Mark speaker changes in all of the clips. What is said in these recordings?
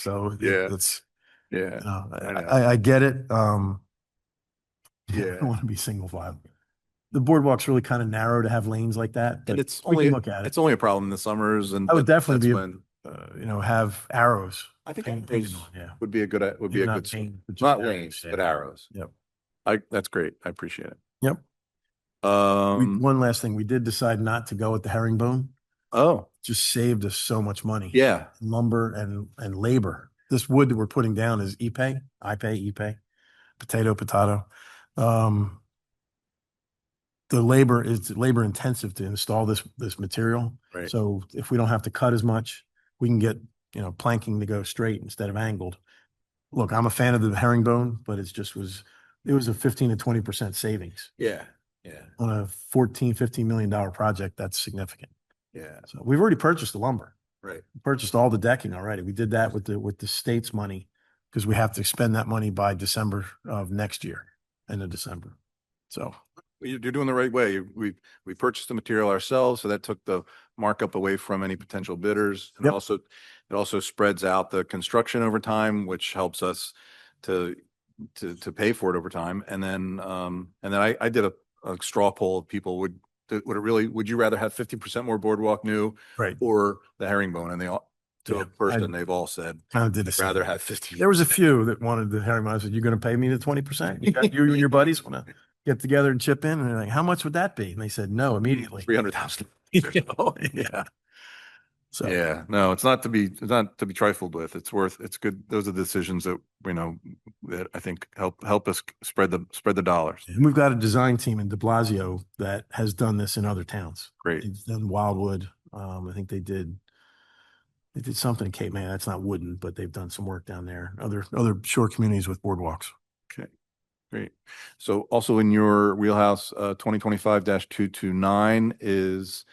Speaker 1: So it-
Speaker 2: Yeah.
Speaker 1: it's,
Speaker 2: Yeah,
Speaker 1: you know, I,
Speaker 2: I know.
Speaker 1: I- I get it. Um, I don't
Speaker 2: yeah.
Speaker 1: want to be single file. The boardwalk's really kind of narrow to have lanes like that. but
Speaker 2: And it's
Speaker 1: we can
Speaker 2: only,
Speaker 1: Look at it,
Speaker 2: it's only a problem in the summers and.
Speaker 1: I would
Speaker 2: but
Speaker 1: definitely
Speaker 2: that's
Speaker 1: be-
Speaker 2: when-
Speaker 1: Uh, you know, have arrows.
Speaker 2: I think
Speaker 1: paint-
Speaker 2: arrows
Speaker 1: painted on, Yeah.
Speaker 2: would be a good, uh, would be
Speaker 1: Maybe
Speaker 2: a
Speaker 1: not
Speaker 2: good, s-
Speaker 1: paint, but just
Speaker 2: not
Speaker 1: arrows,
Speaker 2: lanes,
Speaker 1: yeah.
Speaker 2: but arrows.
Speaker 1: Yep.
Speaker 2: I, that's great. I appreciate it.
Speaker 1: Yep. We-
Speaker 2: Um,
Speaker 1: One last thing, we did decide not to go with the herringbone.
Speaker 2: oh,
Speaker 1: Just saved us so much money.
Speaker 2: yeah,
Speaker 1: Lumber and, and labor. This wood that we're putting down is Ipe, Ipe, Ipe, potato, potato. Um, the labor is labor intensive to install this, this material.
Speaker 2: right.
Speaker 1: So if we don't have to cut as much, we can get, you know, planking to go straight instead of angled. Look, I'm a fan of the herringbone, but it's just was, it was a fifteen to twenty percent savings
Speaker 2: Yeah, yeah,
Speaker 1: on a fourteen, fifteen million dollar project. That's significant.
Speaker 2: yeah,
Speaker 1: So we've already purchased the lumber,
Speaker 2: right.
Speaker 1: purchased all the decking already. We did that with the, with the state's money because we have to spend that money by December of next year, end of December. So
Speaker 2: Well, You're, you're doing the right way. We, we purchased the material ourselves, so that took the markup away from any potential bidders. And it
Speaker 1: Yep.
Speaker 2: also, it also spreads out the construction over time, which helps us to, to, to pay for it over time. And then, um, and then I, I did a, a straw poll of people would, th- would it really, would you rather have fifty percent more boardwalk new
Speaker 1: Right.
Speaker 2: or the herringbone? And they all, to
Speaker 1: Yeah,
Speaker 2: a
Speaker 1: I
Speaker 2: person, they've all said,
Speaker 1: kind of did a.
Speaker 2: rather have fifty.
Speaker 1: There was a few that wanted the Harry Miles. said, you're going to pay me the twenty percent? You got- you and your buddies want to get together and chip in? And they're like, how much would that be? And they said, no, immediately.
Speaker 2: Three hundred thousand.
Speaker 1: You know? Yeah. So,
Speaker 2: Yeah, no, it's not to be, it's not to be trifled with. It's worth, it's good. Those are decisions that, you know, that I think help, help us spread the, spread the dollars.
Speaker 1: and we've got a design team in De Blasio that has done this in other towns.
Speaker 2: Great.
Speaker 1: They've done Wildwood. Um, I think they did, they did something in Cape May. That's not wooden, but they've done some work down there. Other, other shore communities with boardwalks.
Speaker 2: Great. So also in your wheelhouse, uh, twenty twenty-five two two nine is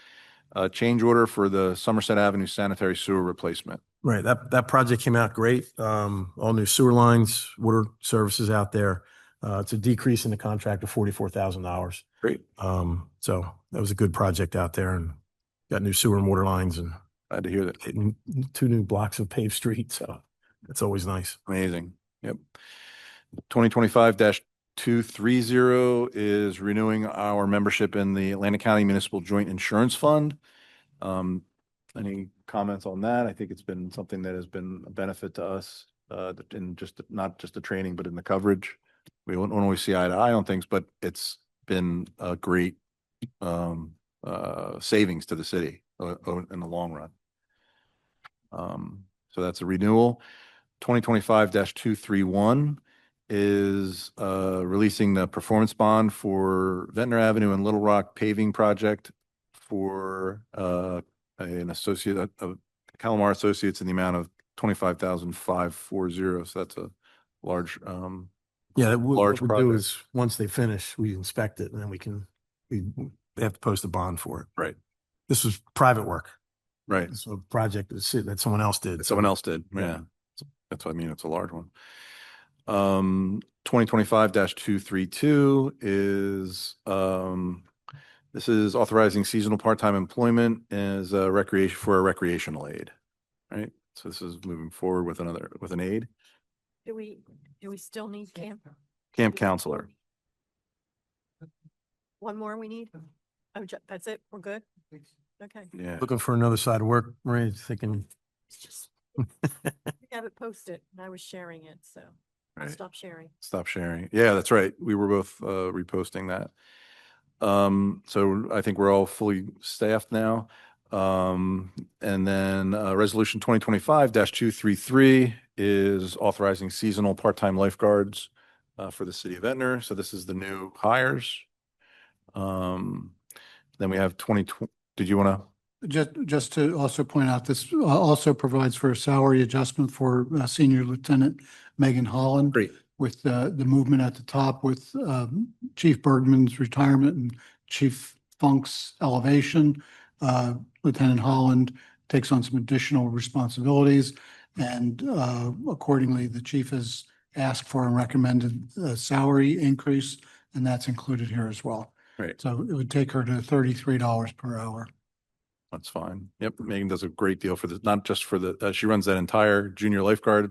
Speaker 2: a change order for the Somerset Avenue sanitary sewer replacement.
Speaker 1: Right, that, that project came out great. Um, all new sewer lines, water services out there. Uh, it's a decrease in the contract of forty-four thousand dollars.
Speaker 2: Great.
Speaker 1: Um, so that was a good project out there and got new sewer and water lines and
Speaker 2: Glad to hear that.
Speaker 1: hitting two new blocks of paved streets. So that's always nice.
Speaker 2: Amazing. Yep. Twenty twenty-five two three zero is renewing our membership in the Atlantic County Municipal Joint Insurance Fund. Um, any comments on that? I think it's been something that has been a benefit to us, uh, in just, not just the training, but in the coverage. We don't don't always see eye to eye on things, but it's been a great, um, uh, savings to the city uh, uh, in the long run. Um, so that's a renewal. Twenty twenty-five two three one is uh releasing the performance bond for Ventnor Avenue and Little Rock paving project for uh an associate of Calamar Associates in the amount of twenty-five thousand five four zero. So that's a large um
Speaker 1: Yeah, that we-
Speaker 2: Large
Speaker 1: what we do
Speaker 2: project.
Speaker 1: is, once they finish, we inspect it and then we can, we, they have to post a bond for it.
Speaker 2: Right.
Speaker 1: This was private work.
Speaker 2: right.
Speaker 1: It's a project that's- that someone else did.
Speaker 2: that Someone else did,
Speaker 1: Yeah.
Speaker 2: yeah. That's what I mean, it's a large one. Um, twenty twenty-five two three two is, um, this is authorizing seasonal part-time employment as a recreation, for a recreational aid, right? So this is moving forward with another, with an aid,
Speaker 3: Do we, do we still need camp?
Speaker 2: camp counselor.
Speaker 3: One more we need? Oh, ju- that's it? We're good? Okay.
Speaker 2: Yeah,
Speaker 1: Looking for another side of work, Maria, thinking
Speaker 3: It's just, we have it posted and I was sharing it, so I'll
Speaker 2: right.
Speaker 3: stop sharing.
Speaker 2: Stop sharing. Yeah, that's right. We were both uh, reposting that. Um, so I think we're all fully staffed now. Um, and then uh, resolution twenty twenty five two three three is authorizing seasonal part time lifeguards uh, for the city of Ventnor. So this is the new hires. Um, then we have twenty. Did you want to?
Speaker 4: Just, just to also point out, this uh, also provides for a salary adjustment for uh, Senior Lieutenant Megan Holland.
Speaker 2: Great.
Speaker 4: With uh, the movement at the top with um, Chief Bergman's retirement and Chief Funk's elevation. uh, Lieutenant Holland takes on some additional responsibilities. And uh, accordingly, the chief has asked for and recommended uh salary increase, and that's included here as well.
Speaker 2: Right.
Speaker 4: So it would take her to thirty-three dollars per hour.
Speaker 2: That's fine. Yep, Megan does a great deal for this, not just for the, uh, she runs that entire junior lifeguard